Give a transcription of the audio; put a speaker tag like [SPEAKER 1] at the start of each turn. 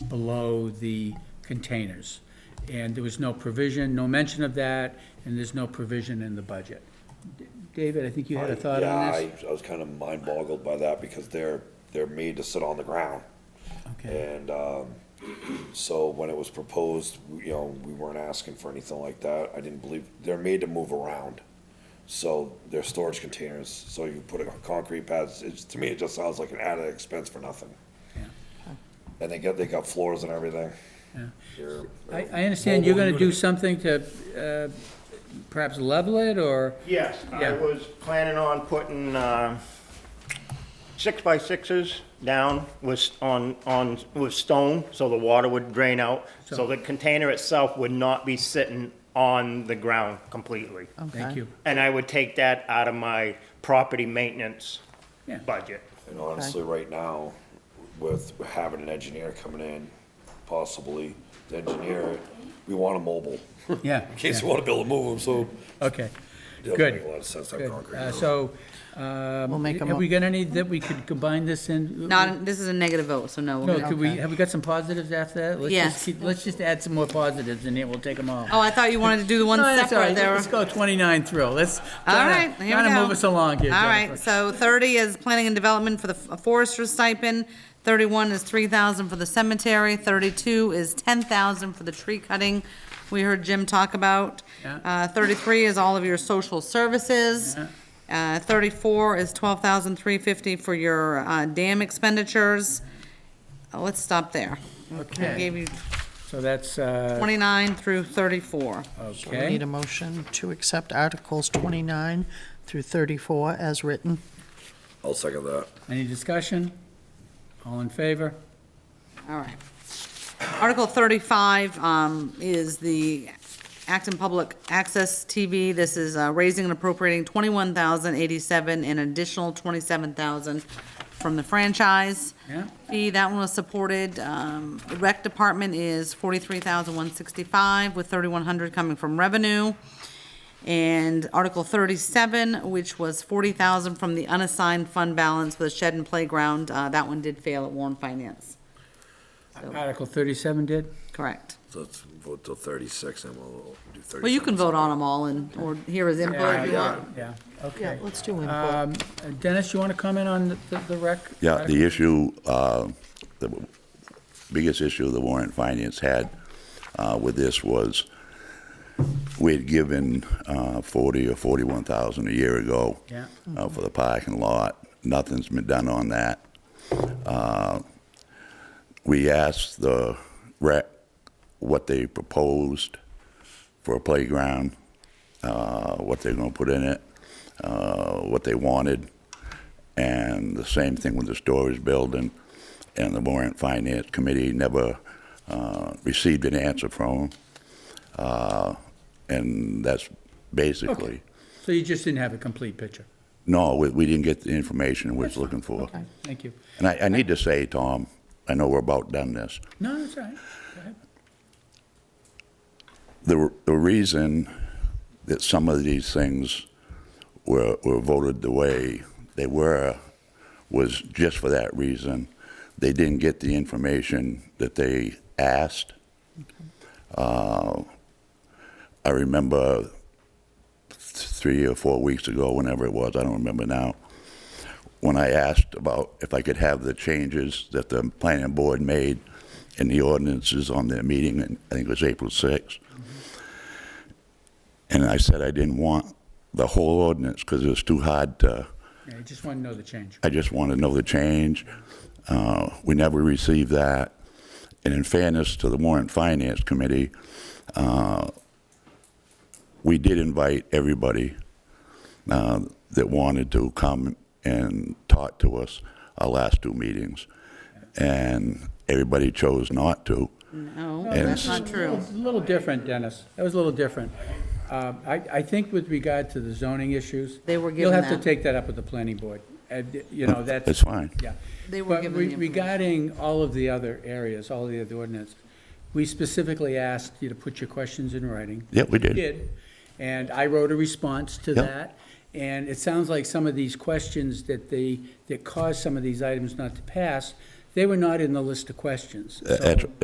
[SPEAKER 1] below the containers. And there was no provision, no mention of that, and there's no provision in the budget. D- David, I think you had a thought on this?
[SPEAKER 2] Yeah, I, I was kind of mind boggled by that because they're, they're made to sit on the ground.
[SPEAKER 1] Okay.
[SPEAKER 2] And, um, so when it was proposed, we- you know, we weren't asking for anything like that. I didn't believe, they're made to move around. So they're storage containers, so you put a concrete pads, it's, to me, it just sounds like an added expense for nothing.
[SPEAKER 1] Yeah.
[SPEAKER 2] And they got, they got floors and everything.
[SPEAKER 1] Yeah.
[SPEAKER 2] They're-
[SPEAKER 1] I, I understand you're gonna do something to uh, perhaps level it, or,
[SPEAKER 3] Yes, I
[SPEAKER 1] Yeah.
[SPEAKER 3] was planning on putting uh, six by sixes down with, s- on, on, with stone, so the water would drain out. So
[SPEAKER 1] So-
[SPEAKER 3] the container itself would not be sitting on the ground completely.
[SPEAKER 1] thank you.
[SPEAKER 3] And I would take that out of my property maintenance
[SPEAKER 1] Yeah.
[SPEAKER 3] budget.
[SPEAKER 2] And honestly, right now, with having an engineer coming in, possibly, the engineer, we want a mobile.
[SPEAKER 1] Yeah.
[SPEAKER 2] In case you wanna build a mobile, so.
[SPEAKER 1] Okay,
[SPEAKER 2] Doesn't
[SPEAKER 1] Good.
[SPEAKER 2] make a lot of sense to have
[SPEAKER 1] good.
[SPEAKER 2] concrete.
[SPEAKER 1] Uh, So, um,
[SPEAKER 4] We'll make a
[SPEAKER 1] have
[SPEAKER 4] mo-
[SPEAKER 1] we got any that we could combine this in?
[SPEAKER 5] Not, this is a negative vote, so no. we're
[SPEAKER 1] No,
[SPEAKER 5] gonna-
[SPEAKER 1] could we,
[SPEAKER 4] Okay.
[SPEAKER 1] have we got some positives after that? Let's just
[SPEAKER 5] Yes.
[SPEAKER 1] keep- Let's just add some more positives, and then we'll take them all.
[SPEAKER 5] Oh, I thought you wanted to do the one
[SPEAKER 1] No, that's all
[SPEAKER 5] separate
[SPEAKER 1] right.
[SPEAKER 5] there.
[SPEAKER 1] Let's go 29 through. Let's
[SPEAKER 5] All
[SPEAKER 1] try
[SPEAKER 5] right,
[SPEAKER 1] to-
[SPEAKER 5] here
[SPEAKER 1] try
[SPEAKER 5] we
[SPEAKER 1] to
[SPEAKER 5] go.
[SPEAKER 1] move us along here,
[SPEAKER 5] All right,
[SPEAKER 1] Jennifer.
[SPEAKER 5] so thirty is planning and development for the f- forester's stipend, thirty-one is three thousand for the cemetery, thirty-two is ten thousand for the tree cutting we heard Jim talk about.
[SPEAKER 1] Yeah.
[SPEAKER 5] Uh, thirty-three is all of your social services. Uh, thirty-four is twelve thousand three fifty for your, uh, dam expenditures. Uh, Let's stop there. I
[SPEAKER 1] Okay,
[SPEAKER 5] gave you
[SPEAKER 1] so that's, uh,
[SPEAKER 5] twenty-nine through thirty-four.
[SPEAKER 4] We need
[SPEAKER 1] okay.
[SPEAKER 4] a motion to accept Articles 29 through 34 as written.
[SPEAKER 2] I'll second that.
[SPEAKER 1] Any discussion? All in favor?
[SPEAKER 5] All right. Article 35 um, is the Acton Public Access TV. This is uh, raising and appropriating 21087 and additional 27000 from the franchise.
[SPEAKER 1] Yeah.
[SPEAKER 5] Fee, that one was supported. Um, the Rec Department is 43165 with 3100 coming from revenue. And Article 37, which was 40000 from the unassigned fund balance for the shed and playground, uh, that one did fail at Warren Finance.
[SPEAKER 1] Article 37 did?
[SPEAKER 5] Correct.
[SPEAKER 2] So let's vote till thirty-six and we'll do thirty.
[SPEAKER 5] Well, you can vote on them all and, or hear his input if you want.
[SPEAKER 1] Yeah,
[SPEAKER 4] Yeah,
[SPEAKER 1] okay.
[SPEAKER 4] let's do input.
[SPEAKER 1] Um, Dennis, you want to comment on the- the- the rec?
[SPEAKER 6] Yeah,
[SPEAKER 1] article?
[SPEAKER 6] the issue, uh, the biggest issue the warrant finance had uh, with this was we had given uh, 40 or 41,000 a year ago
[SPEAKER 1] Yeah.
[SPEAKER 6] uh, for the parking lot. Nothing's been done on that. Uh, We asked the rec what they proposed for a playground, uh, what they're going to put in it, uh, what they wanted. And the same thing with the storage building. And the warrant finance committee never uh, received an answer from them. Uh, And that's basically,
[SPEAKER 1] So you just didn't have a complete picture.
[SPEAKER 6] no, we, we didn't get the information we was looking for.
[SPEAKER 4] Okay.
[SPEAKER 1] Thank you.
[SPEAKER 6] And I, I need to say, Tom, I know we're about done this.
[SPEAKER 1] No, that's all right. Go ahead.
[SPEAKER 6] the, the reason that some of these things were, were voted the way they were was just for that reason. They didn't get the information that they asked. Uh, I remember three or four weeks ago, whenever it was, I don't remember now, when I asked about if I could have the changes that the planning board made in the ordinances on their meeting, and I think it was April 6th. And I said I didn't want the whole ordinance because it was too hard to,
[SPEAKER 1] Yeah, I just want to know the change.
[SPEAKER 6] I just want to know the change. Uh, We never received that. And in fairness to the warrant finance committee, uh, we did invite everybody uh, that wanted to come and talk to us our last two meetings. And everybody chose not to.
[SPEAKER 5] No,
[SPEAKER 6] And-
[SPEAKER 5] that's not true.
[SPEAKER 1] It's a little different, Dennis. That was a little different. Um, I, I think with regard to the zoning issues.
[SPEAKER 5] They were
[SPEAKER 1] You'll
[SPEAKER 5] given
[SPEAKER 1] have to
[SPEAKER 5] that.
[SPEAKER 1] take that up with the planning board. And, you know, that's.
[SPEAKER 6] That's fine.
[SPEAKER 1] Yeah.
[SPEAKER 5] They were
[SPEAKER 1] But
[SPEAKER 5] given
[SPEAKER 1] re-
[SPEAKER 5] the information.
[SPEAKER 1] Regarding all of the other areas, all the other ordinance, we specifically asked you to put your questions in writing.
[SPEAKER 6] Yeah, we did.
[SPEAKER 1] You did. And I wrote a response to
[SPEAKER 6] Yep.
[SPEAKER 1] that. And it sounds like some of these questions that they, that caused some of these items not to pass, they were not in the list of questions. So-
[SPEAKER 6] Uh, that's-